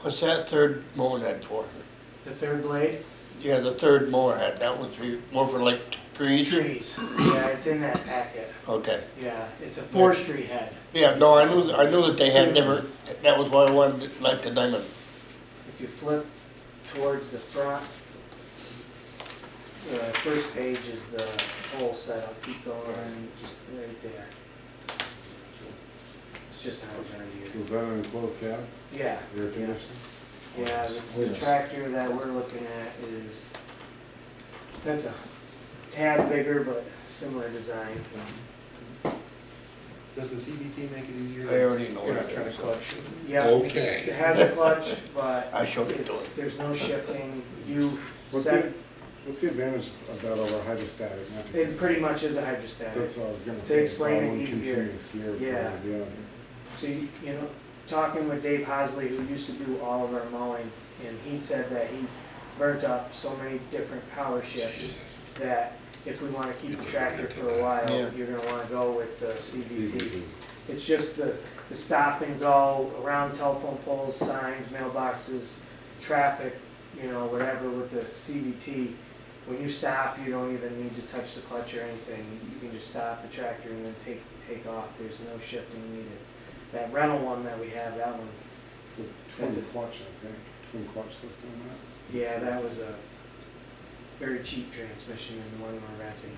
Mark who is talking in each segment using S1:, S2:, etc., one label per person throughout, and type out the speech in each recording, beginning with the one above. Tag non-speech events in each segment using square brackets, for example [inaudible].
S1: What's that third mower head for?
S2: The third blade?
S1: Yeah, the third mower head, that was for, more for like trees?
S2: Trees. Yeah, it's in that packet.
S1: Okay,
S2: Yeah, it's a forestry head.
S1: yeah, no, I knew, I knew that they had never, that was why I wanted, like the diamond.
S2: If you flip towards the front, the first page is the whole setup. Keep going, just right there. It's just how it's gonna
S3: So
S2: use.
S3: is that an enclosed cab,
S2: Yeah.
S3: air
S2: yeah.
S3: conditioning?
S2: Yeah, the- the
S3: Yes.
S2: tractor that we're looking at is, that's a tad bigger, but similar design.
S4: Does the CVT make it easier?
S1: I already know
S4: You're
S1: what
S4: not
S1: it
S4: trying to
S1: is.
S4: clutch.
S2: Yeah, it
S5: Okay.
S2: has a clutch, but
S1: I showed it to
S2: it's,
S1: him.
S2: there's no shifting. You
S3: What's
S2: set,
S3: it? What's the advantage of that over hydrostatic? Not to-
S2: it pretty much is a hydrostatic.
S3: That's what I was gonna
S2: To
S3: say.
S2: explain
S3: it's
S2: it
S3: all one
S2: easier.
S3: continuous gear.
S2: Yeah.
S3: probably, Yeah.
S2: So, you you know, talking with Dave Hosley, who used to do all of our mowing, and he said that he burnt up so many different power shifts that if we wanna keep the tractor for a
S1: Yeah.
S2: while, you're gonna wanna go with the CVT.
S3: CVT.
S2: It's just the, the stop and go around telephone poles, signs, mailboxes, traffic, you know, whatever with the CVT. When you stop, you don't even need to touch the clutch or anything. You can just stop the tractor and then take, take off. There's no shifting needed. That rental one that we have, that one,
S3: It's a
S2: That's
S3: twin
S2: it.
S3: clutch, I think, twin clutch system, that.
S2: yeah, that was a very cheap transmission and the one we're renting.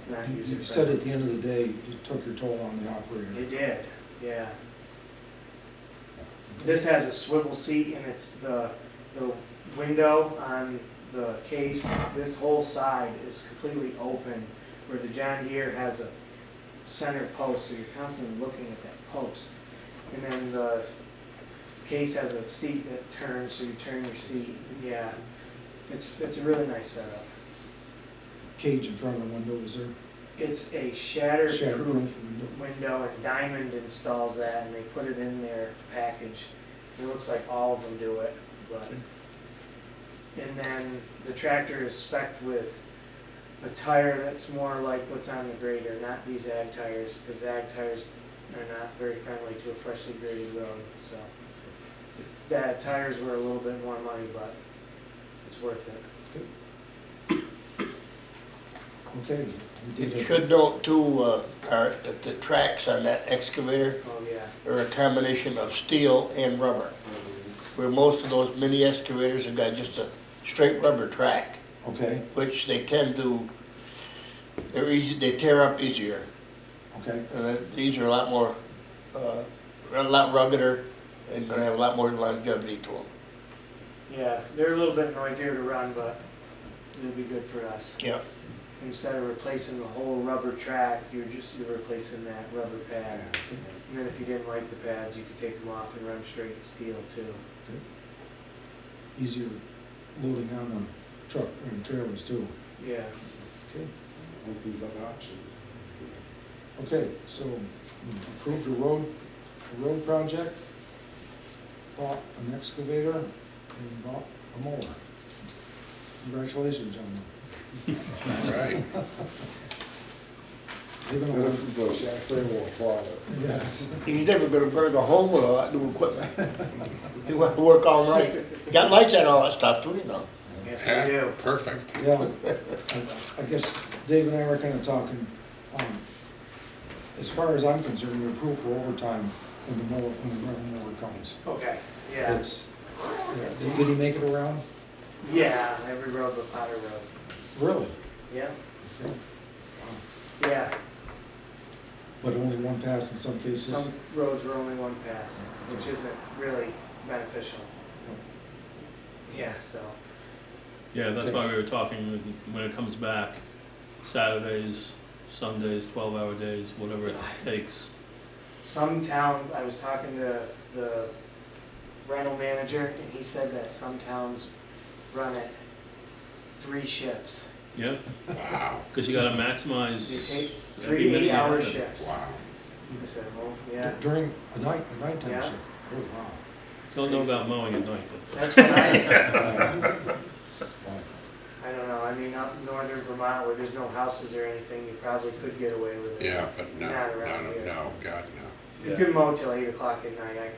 S2: It's not
S6: You-
S2: user
S6: You said at
S2: friendly.
S6: the end of the day, you took your toll on the operator.
S2: It did, yeah. This has a swivel seat and it's the, the window on the case, this whole side is completely open, where the John Deere has a center post, so you're constantly looking at that post. And then the s- case has a seat that turns, so you turn your seat, yeah. It's, it's a really nice setup.
S6: Cage in front of the window, is there?
S2: It's a
S6: Shatterproof
S2: shatterproof
S6: window.
S2: window and Diamond installs that and they put it in their package. It looks like all of them do it, but. And then the tractor is specced with a tire that's more like what's on the grader, not these ag tires, because ag tires are not very friendly to a freshly graded road, so. it's- That tires were a little bit more money, but it's worth it.
S6: Okay. we did
S1: You
S6: it.
S1: should note too, uh, Art, that the tracks on that excavator
S2: Oh, yeah.
S1: are a combination of steel and rubber. Where most of those mini excavators have got just a straight rubber track,
S6: Okay,
S1: which they tend to, they're easy, they tear up easier.
S6: okay,
S1: And then Uh, these are a lot more, uh, a lot ruggeder and gonna have a lot more longevity to them.
S2: Yeah, they're a little bit noisier to run, but it'll be good for us.
S1: Yeah,
S2: Instead of replacing the whole rubber track, you're just, you're replacing that rubber pad.
S3: Yeah.
S2: And then if you didn't like the pads, you could take them off and run straight steel too.
S6: easier loading on them truck and trailers too.
S2: Yeah.
S6: Okay,
S3: Opens up options. That's good.
S6: okay, so mm, approve your road, road project, bought an excavator and bought a mower. Congratulations, gentlemen.
S5: All right.
S2: [laughs]
S6: They've been a long-
S3: Citizens of Shasbury will applaud us.
S6: Yes.
S1: he's never gonna burn a home with all that new equipment. [laughs] He wants to work all night. Got lights and all that stuff too, you know.
S2: Yes,
S5: Yeah,
S2: I do.
S5: Perfect.
S6: Yeah, I- I guess Dave and I were kind of talking, um, as far as I'm concerned, your proof for overtime when the mower, when the running mower comes.
S2: Okay, yeah.
S6: It's, yeah, did did he make it around?
S2: Yeah, every road but Potter Road.
S6: Really?
S2: Yeah,
S6: Okay.
S2: yeah.
S6: But only one pass in some
S2: Some
S6: cases?
S2: roads were only one pass, which isn't really beneficial. Yeah, so,
S7: Yeah, that's why we were talking, when- when it comes back, Saturdays, Sundays, twelve-hour days, whatever it takes.
S2: some towns, I was talking to the rental manager, and he said that some towns run it three shifts.
S7: Yeah,
S5: Wow,
S7: because you gotta maximize.
S2: You take
S7: every
S2: three
S7: minute you
S2: eight-hour
S7: have it.
S2: shifts.
S5: wow.
S2: I said, well, yeah,
S6: During a night, a nighttime
S2: Yeah.
S6: shift? Oh,
S7: Don't know about mowing at night, but
S2: that's what I said.
S6: wow. Wow.
S2: I don't know, I mean, up in northern Vermont where there's no houses or anything, you probably could get away with it.
S5: Yeah, but no,
S2: Not around
S5: no, no,
S2: here.
S5: no, God, no.
S2: You could mow till eight o'clock at night, I